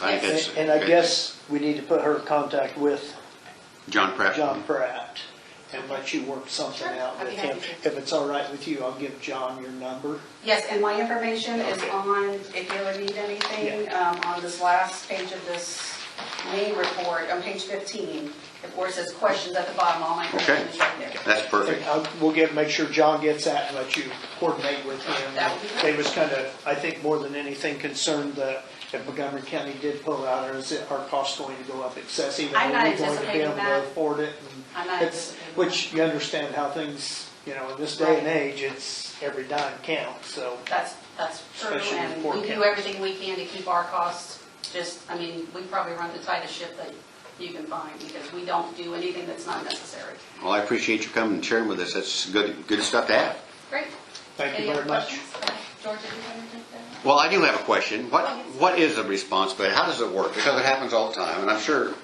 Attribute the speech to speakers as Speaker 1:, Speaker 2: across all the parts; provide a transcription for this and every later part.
Speaker 1: I think that's.
Speaker 2: And and I guess we need to put her in contact with
Speaker 1: John Pratt.
Speaker 2: John Pratt and let you work something
Speaker 3: Sure,
Speaker 2: out
Speaker 3: I'd
Speaker 2: with
Speaker 3: be
Speaker 2: him.
Speaker 3: happy to.
Speaker 2: If it's all right with you, I'll give John your number.
Speaker 3: Yes, and my information is
Speaker 2: Okay.
Speaker 3: on, if you ever need anything, um, on this last page of this May report, on page 15, of course, it says questions at the bottom, all my information
Speaker 1: Okay.
Speaker 3: is right there.
Speaker 1: That's
Speaker 2: And uh,
Speaker 1: perfect.
Speaker 2: I'll- We'll get, make sure John gets that and let you coordinate with him.
Speaker 3: That would be great.
Speaker 2: They was kind of, I think more than anything concerned that if Montgomery County did pull out, or is it, are costs going to go up excessive?
Speaker 3: I'm not
Speaker 2: Are we going to be able
Speaker 3: anticipating
Speaker 2: to
Speaker 3: that.
Speaker 2: Afford it? And
Speaker 3: I'm not
Speaker 2: it's-
Speaker 3: anticipating
Speaker 2: Which you understand how things, you know, in this day and
Speaker 3: Right.
Speaker 2: age, it's every dime counts, so.
Speaker 3: That's, that's true,
Speaker 2: Especially with
Speaker 3: and
Speaker 2: four
Speaker 3: we do
Speaker 2: cameras.
Speaker 3: everything we can to keep our costs, just, I mean, we probably run the tightest ship that you can find, because we don't do anything that's not necessary.
Speaker 1: Well, I appreciate you coming and sharing with us. That's good, good stuff to have.
Speaker 3: Great.
Speaker 2: Thank you
Speaker 3: Any other
Speaker 2: very much.
Speaker 3: questions? George, did you have anything to
Speaker 1: Well, I do have a question. What, what is the responsibility? How does it work? Because it happens all the time, and I'm sure,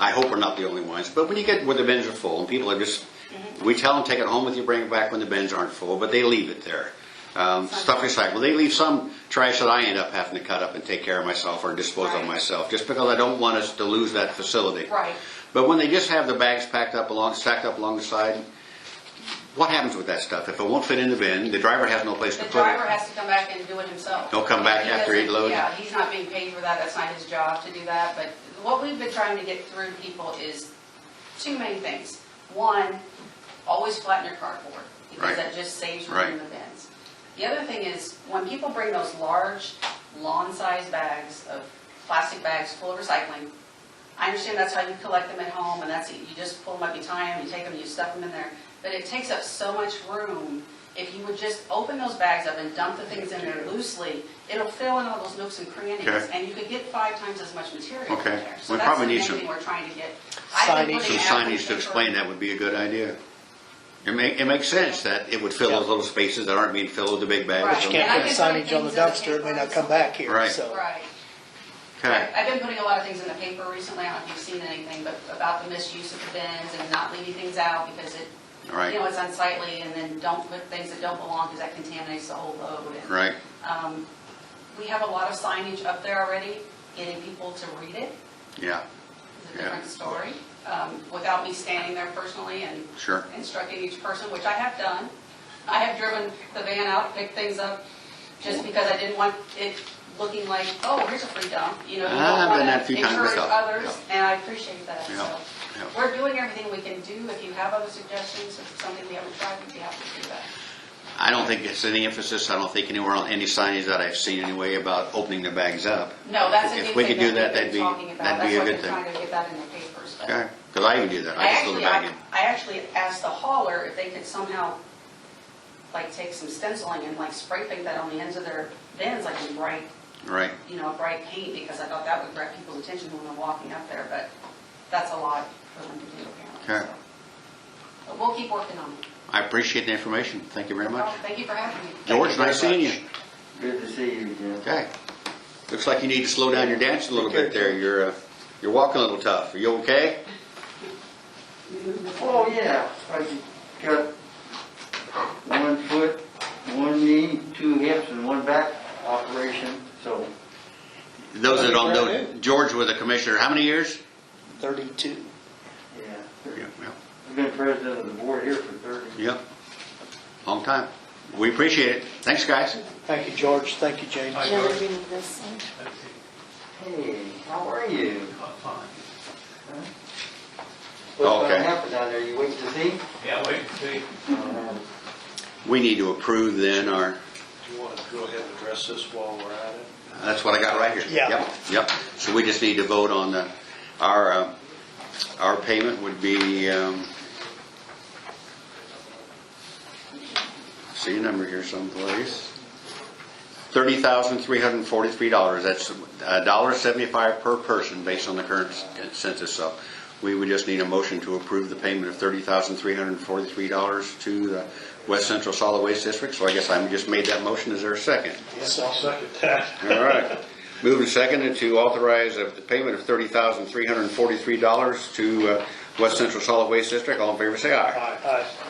Speaker 1: I hope we're not the only ones, but when you get, when the bins are full, and people are just,
Speaker 3: Mm-hmm.
Speaker 1: we tell them, take it home with you, bring it back when the bins aren't full, but they leave it there. Um, Stuff recycled. They leave some trash that I end up having to cut up and take care of myself or dispose of
Speaker 3: Right.
Speaker 1: myself, just because I don't want us to lose that facility.
Speaker 3: add? Right.
Speaker 1: But when they just have the bags packed up along, stacked up along the side, what happens with that stuff? If it won't fit in the bin, the driver has no place to
Speaker 3: The
Speaker 1: put
Speaker 3: driver
Speaker 1: it.
Speaker 3: has to come back and do it himself.
Speaker 1: He'll come back after he
Speaker 3: doesn't-
Speaker 1: loads?
Speaker 3: Yeah, he's not being paid for that, that's not his job to do that, but what we've been trying to get through to people is two main things. One, always flatten your cardboard,
Speaker 1: Right.
Speaker 3: because that just saves room in
Speaker 1: Right.
Speaker 3: the bins. The other thing is, when people bring those large, lawn-sized bags of, plastic bags full of recycling, I understand that's how you collect them at home, and that's, it. you just pull them up, you tie them, you take them, you stuff them in there. But it takes up so much room. If you would just open those bags up and dump the things in there loosely, it'll fill in all those nooks and crannies,
Speaker 1: Okay.
Speaker 3: and you could get five times as much material in
Speaker 1: Okay.
Speaker 3: there. So
Speaker 1: We
Speaker 3: that's
Speaker 1: probably
Speaker 3: the
Speaker 1: need
Speaker 3: main
Speaker 1: some-
Speaker 3: thing we're trying to get. I've been
Speaker 2: Signage.
Speaker 1: Some
Speaker 3: putting
Speaker 1: signage to
Speaker 3: application-
Speaker 1: explain that would be a good idea. It make, it makes sense that it would fill those little spaces that aren't being filled with the big bags.
Speaker 3: Right.
Speaker 2: Just
Speaker 3: And I
Speaker 2: can't put
Speaker 3: can
Speaker 2: a
Speaker 3: find
Speaker 2: signage on the
Speaker 3: things that
Speaker 2: dumpster, it may
Speaker 3: can't
Speaker 2: not
Speaker 3: find
Speaker 2: come back here,
Speaker 1: Right.
Speaker 2: so.
Speaker 3: Right.
Speaker 1: Okay,
Speaker 3: I've been putting a lot of things in the paper recently, I don't know if you've seen anything, but about the misuse of the bins and not leaving things out because it,
Speaker 1: all right,
Speaker 3: you know, it's unsightly, and then don't put things that don't belong because that contaminates the whole load. And
Speaker 1: right,
Speaker 3: We have a lot of signage up there already, getting people to read it,
Speaker 1: yeah,
Speaker 3: it's a
Speaker 1: Yeah.
Speaker 3: different story, um, without me standing there personally and
Speaker 1: sure.
Speaker 3: instructing each person, which I have done. I have driven the van out, picked things up, just because I didn't want it looking like, oh, here's a free dump, you know. you don't
Speaker 1: Ah, I've done
Speaker 3: wanna
Speaker 1: that a few times
Speaker 3: Encourage
Speaker 1: myself,
Speaker 3: others, and I appreciate that,
Speaker 1: Yeah,
Speaker 3: so.
Speaker 1: yeah.
Speaker 3: We're doing everything we can do. If you have other suggestions, if it's something we haven't tried, we'd be happy to do that.
Speaker 1: I don't think it's any emphasis, I don't think anywhere on any signage that I've seen anyway about opening the bags up.
Speaker 3: No, that's a new
Speaker 1: If
Speaker 3: thing
Speaker 1: we could do that,
Speaker 3: that
Speaker 1: that'd
Speaker 3: we've
Speaker 1: be,
Speaker 3: been talking about.
Speaker 1: that'd be a good
Speaker 3: That's why I've
Speaker 1: thing.
Speaker 3: been trying to get that in the papers, but.
Speaker 1: Okay, because I even do that,
Speaker 3: I
Speaker 1: I just throw the
Speaker 3: actually,
Speaker 1: bag
Speaker 3: I
Speaker 1: in.
Speaker 3: I actually asked the hauler if they could somehow, like, take some stenciling and like spray paint that on the ends of their bins, like in bright,
Speaker 1: Right,
Speaker 3: you know, bright paint, because I thought that would grab people's attention when they're walking up there, but that's a lot for them to do apparently.
Speaker 1: Okay.
Speaker 3: so. But we'll keep working on it.
Speaker 1: I appreciate the information, thank you very much.
Speaker 3: Well, Thank you for having me.
Speaker 1: George,
Speaker 4: very
Speaker 1: nice seeing you.
Speaker 4: much. Good to see you again.
Speaker 1: Okay. Looks like you need to slow down your dance a little bit there. You're, uh, you're walking a little tough. Are you okay?
Speaker 4: Oh, yeah, I got one foot, one knee, two hips, and one back operation, so
Speaker 1: Those that don't know, George was a commissioner, how many years?
Speaker 2: Thirty-two.
Speaker 1: Yeah,
Speaker 4: yeah.
Speaker 1: yeah,
Speaker 4: I've been president of the board here for 30 years.
Speaker 1: Yep. Long time. We appreciate it. Thanks, guys.
Speaker 2: Thank you, George, thank you, James.
Speaker 5: Shall we do this one?
Speaker 4: Hey, how are you?
Speaker 6: Fine.
Speaker 4: What's
Speaker 1: Okay.
Speaker 4: gonna happen down there, you waiting to see?
Speaker 6: Yeah, wait and see.
Speaker 4: Uh,
Speaker 1: We need to approve then our,
Speaker 7: Do you want to go ahead and address this while we're at it?
Speaker 1: that's what I got right here.
Speaker 2: Yeah.
Speaker 1: Yep, Yep. So we just need to vote on the, our, uh, our payment would be, um, I see a number here someplace. Thirty thousand, three hundred and forty-three dollars. That's a dollar seventy-five per person based on the current uh, census. So we would just need a motion to approve the payment of thirty thousand, three hundred and forty-three dollars to the West Central Solid Waste District. So I guess I just made that motion. Is there a second?
Speaker 7: Yes, I'll second that.
Speaker 1: All right. Moving seconded to authorize of the payment of thirty uh, thousand, three hundred and forty-three dollars to uh, West Central Solid Waste District. All in favor, say aye.
Speaker 7: Aye.